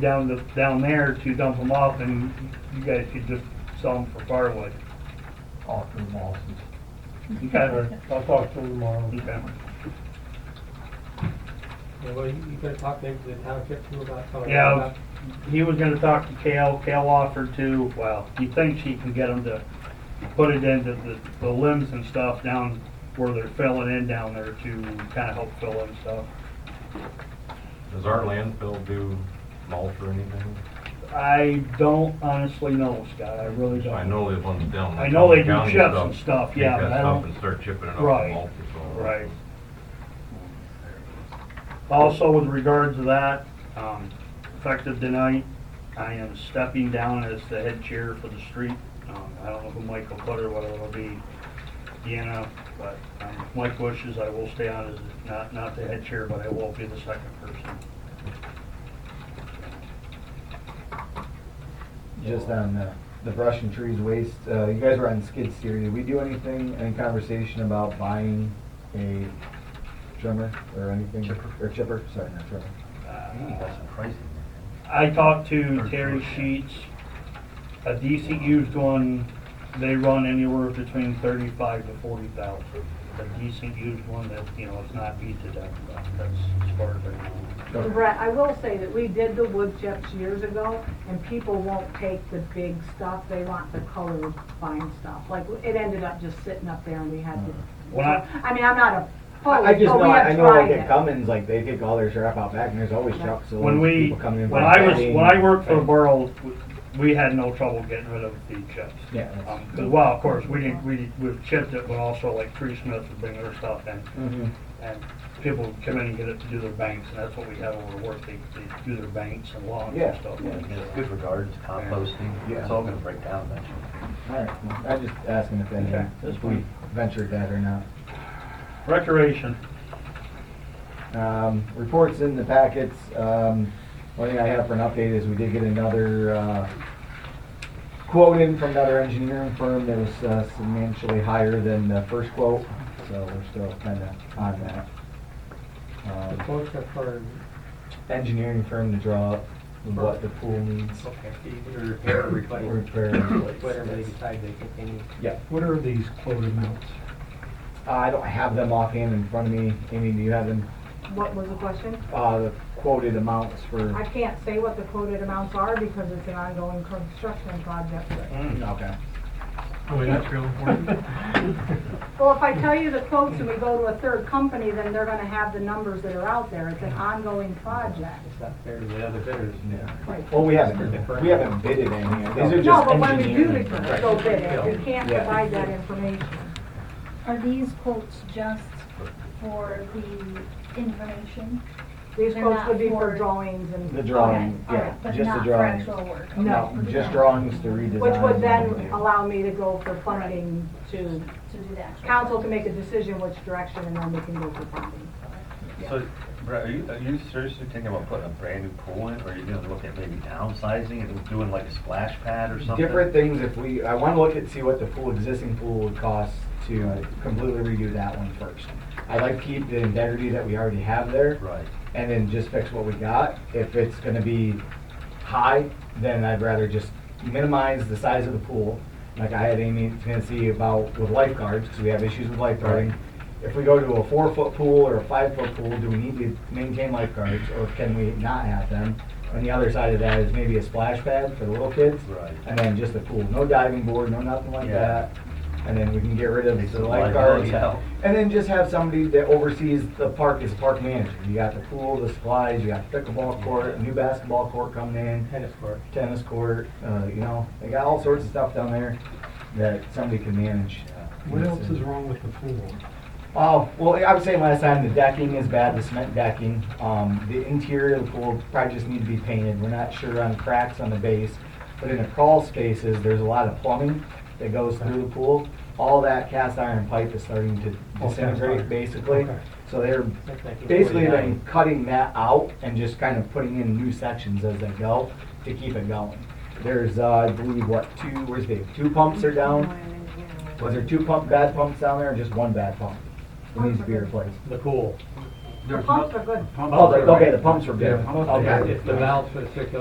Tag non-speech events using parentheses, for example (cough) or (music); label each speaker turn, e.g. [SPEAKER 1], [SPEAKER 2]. [SPEAKER 1] down the, down there to dump them off, and you guys could just sell them for firewood.
[SPEAKER 2] all through Molson's.
[SPEAKER 1] Okay,
[SPEAKER 3] I'll talk to him tomorrow.
[SPEAKER 1] okay.
[SPEAKER 4] Yeah, well, you, you gotta talk maybe to the town tip too about telling them
[SPEAKER 1] Yeah,
[SPEAKER 4] about-
[SPEAKER 1] he was gonna talk to Kale, Kale offered to, well, he thinks he can get them to put it into the, the limbs and stuff down where they're filling in down there to kinda help fill in stuff.
[SPEAKER 2] Does our landfill do mulch or anything?
[SPEAKER 1] I don't honestly know, Scott, I really don't.
[SPEAKER 2] I know they ones down.
[SPEAKER 1] I know they do
[SPEAKER 2] county
[SPEAKER 1] chips and stuff, yeah,
[SPEAKER 2] Take
[SPEAKER 1] but
[SPEAKER 2] that
[SPEAKER 1] I
[SPEAKER 2] stuff
[SPEAKER 1] don't-
[SPEAKER 2] and start chipping it up
[SPEAKER 1] Right,
[SPEAKER 2] with mulch or something.
[SPEAKER 1] right. Also, with regard to that, um, effective tonight, I am stepping down as the head chair for the street. Um, I don't know who Mike will put or whether it'll be Deanna, but um, if Mike wishes, I will stay on as, not, not the head chair, but I will be the second person.
[SPEAKER 5] Just on the, the brush and trees waste, uh, you guys were on skid steer, did we do anything, any conversation about buying a trimmer or anything?
[SPEAKER 2] Chipper.
[SPEAKER 5] Or chipper, sorry, not trimmer.
[SPEAKER 1] Uh,
[SPEAKER 2] Ooh, that's some pricing.
[SPEAKER 1] I talked to Terry Sheets, a decent used one, they run anywhere between thirty-five to forty thousand. A decent used one that, you know, it's not beat to death, but that's as far as I know.
[SPEAKER 5] Okay.
[SPEAKER 6] Brett, I will say that we did the wood chips years ago, and people won't take the big stuff, they want the colored fine stuff. Like, it ended up just sitting up there and we had to,
[SPEAKER 1] When I,
[SPEAKER 6] I mean, I'm not a
[SPEAKER 5] Uh, I I
[SPEAKER 6] poet, but Oh, we
[SPEAKER 5] just know, I
[SPEAKER 6] have
[SPEAKER 5] know like
[SPEAKER 6] tried
[SPEAKER 5] at
[SPEAKER 6] it.
[SPEAKER 5] Cummins, like they take all their crap out back and there's always
[SPEAKER 6] Yeah.
[SPEAKER 5] trucks, so
[SPEAKER 1] when we,
[SPEAKER 5] people come in.
[SPEAKER 1] when
[SPEAKER 5] for
[SPEAKER 1] I was,
[SPEAKER 5] bedding.
[SPEAKER 1] when I worked for the borough, we had no trouble getting rid of the chips.
[SPEAKER 5] Yeah, that's-
[SPEAKER 1] Um, 'cause, well, of course, we didn't, we, we chipped it, but also like Tree Smith would bring their stuff in.
[SPEAKER 5] Mhm.
[SPEAKER 1] And people would come in and get it to do their banks, and that's what we had over work, they, they do their banks and lawns and
[SPEAKER 5] Yeah,
[SPEAKER 1] stuff
[SPEAKER 5] yeah.
[SPEAKER 1] like
[SPEAKER 7] It's
[SPEAKER 1] that.
[SPEAKER 7] good regards, composting, it's all gonna break down eventually.
[SPEAKER 5] All right, well, I'm just asking if any,
[SPEAKER 1] Okay, that's
[SPEAKER 5] if we
[SPEAKER 1] fine.
[SPEAKER 5] ventured that or not.
[SPEAKER 1] Recreation,
[SPEAKER 5] Um, reports in the packets, um, one thing I have for an update is we did get another, uh, quote in from another engineering firm that was uh, substantially higher than the first quote, so we're still kinda on that.
[SPEAKER 4] The
[SPEAKER 5] Um,
[SPEAKER 4] quotes are for,
[SPEAKER 5] Engineering firm to draw up what the pool needs.
[SPEAKER 4] okay, either repair or replace,
[SPEAKER 5] Repair and replace,
[SPEAKER 4] whatever they
[SPEAKER 5] yes.
[SPEAKER 4] decide they think they need.
[SPEAKER 5] Yeah,
[SPEAKER 3] What are these quote
[SPEAKER 1] (laughs)
[SPEAKER 3] amounts?
[SPEAKER 5] I don't have them offhand in front of me, Amy, do you have them,
[SPEAKER 6] What was the question?
[SPEAKER 5] uh, the quoted amounts for?
[SPEAKER 6] I can't say what the quoted amounts are because it's an ongoing construction project.
[SPEAKER 5] Mm-hmm.
[SPEAKER 4] Hmm.
[SPEAKER 5] Okay.
[SPEAKER 3] Oh, that's real important.
[SPEAKER 6] Well, if I tell you the quotes and we go to a third company, then they're gonna have the numbers that are out there, it's an ongoing project.
[SPEAKER 4] It's not fair to the other bidders.
[SPEAKER 5] Yeah. Well, we haven't, we haven't bidded any, yet. these are
[SPEAKER 6] No,
[SPEAKER 5] just
[SPEAKER 6] but when we do
[SPEAKER 5] engineering.
[SPEAKER 6] it, go bid it, we can't
[SPEAKER 5] Yeah.
[SPEAKER 6] provide that information.
[SPEAKER 8] Are these quotes just for the information?
[SPEAKER 6] These
[SPEAKER 8] They're
[SPEAKER 6] quotes
[SPEAKER 8] not
[SPEAKER 6] would be for
[SPEAKER 8] for-
[SPEAKER 6] drawings and,
[SPEAKER 5] The
[SPEAKER 6] which
[SPEAKER 5] drawing,
[SPEAKER 8] Okay, all
[SPEAKER 5] yeah,
[SPEAKER 8] right, but
[SPEAKER 5] just the
[SPEAKER 8] not for
[SPEAKER 5] drawings.
[SPEAKER 8] actual work.
[SPEAKER 6] No,
[SPEAKER 8] Okay.
[SPEAKER 5] Just drawings to redesign.
[SPEAKER 6] would then
[SPEAKER 5] and-
[SPEAKER 6] allow me to go for funding to,
[SPEAKER 8] To do the actual.
[SPEAKER 6] council can make a decision which direction and then we can go for funding.
[SPEAKER 7] So, Brett, are you, are you seriously thinking about putting a brand new pool in, or are you gonna look at maybe downsizing and doing like a splash pad or something?
[SPEAKER 5] Different things if we, I wanna look at, see what the pool, existing pool would cost to completely redo that one first. I'd like to keep the integrity that we already have there.
[SPEAKER 7] Right.
[SPEAKER 5] And then just fix what we got. If it's gonna be high, then I'd rather just minimize the size of the pool. Like I had Amy in Tennessee about with lifeguards, because we have issues with lifeguarding. If we go to a four-foot pool or a five-foot pool, do we need to maintain lifeguards, or can we not have them? And the other side of that is maybe a splash pad for the little kids.
[SPEAKER 7] Right.
[SPEAKER 5] And then just a pool, no diving board, no nothing like
[SPEAKER 7] Yeah.
[SPEAKER 5] that. And then we can get rid of
[SPEAKER 7] Take
[SPEAKER 5] the
[SPEAKER 7] some
[SPEAKER 5] lifeguards.
[SPEAKER 7] liability out.
[SPEAKER 5] And then just have somebody that oversees the park as park manager. You got the pool, the supplies, you got pickleball court, a new basketball court coming in
[SPEAKER 4] Tennis court.
[SPEAKER 5] tennis court, uh, you know, they got all sorts of stuff down there that somebody can manage.
[SPEAKER 3] What else is wrong with the pool?
[SPEAKER 5] Oh, well, I was saying last time, the decking is bad, the cement decking, um, the interior of the pool probably just need to be painted, we're not sure on cracks on the base, but in the crawl spaces, there's a lot of plumbing that goes through the pool, all that cast iron pipe is starting to
[SPEAKER 3] Oh, cast
[SPEAKER 5] disintegrate,
[SPEAKER 3] iron.
[SPEAKER 5] basically,
[SPEAKER 3] Okay.
[SPEAKER 5] so they're
[SPEAKER 4] That's like
[SPEAKER 5] basically been
[SPEAKER 4] 49.
[SPEAKER 5] cutting that out and just kind of putting in new sections as they go to keep it going. There's, uh, I believe, what, two, where's the, two pumps are down? Was there two pump, bad pumps down there or just one bad pump? It needs to be replaced.
[SPEAKER 4] The pool.
[SPEAKER 6] The pumps are good.
[SPEAKER 5] Oh, the- okay, the pumps were good.
[SPEAKER 3] Yeah.
[SPEAKER 5] Okay.
[SPEAKER 4] It's the valves for the circulation.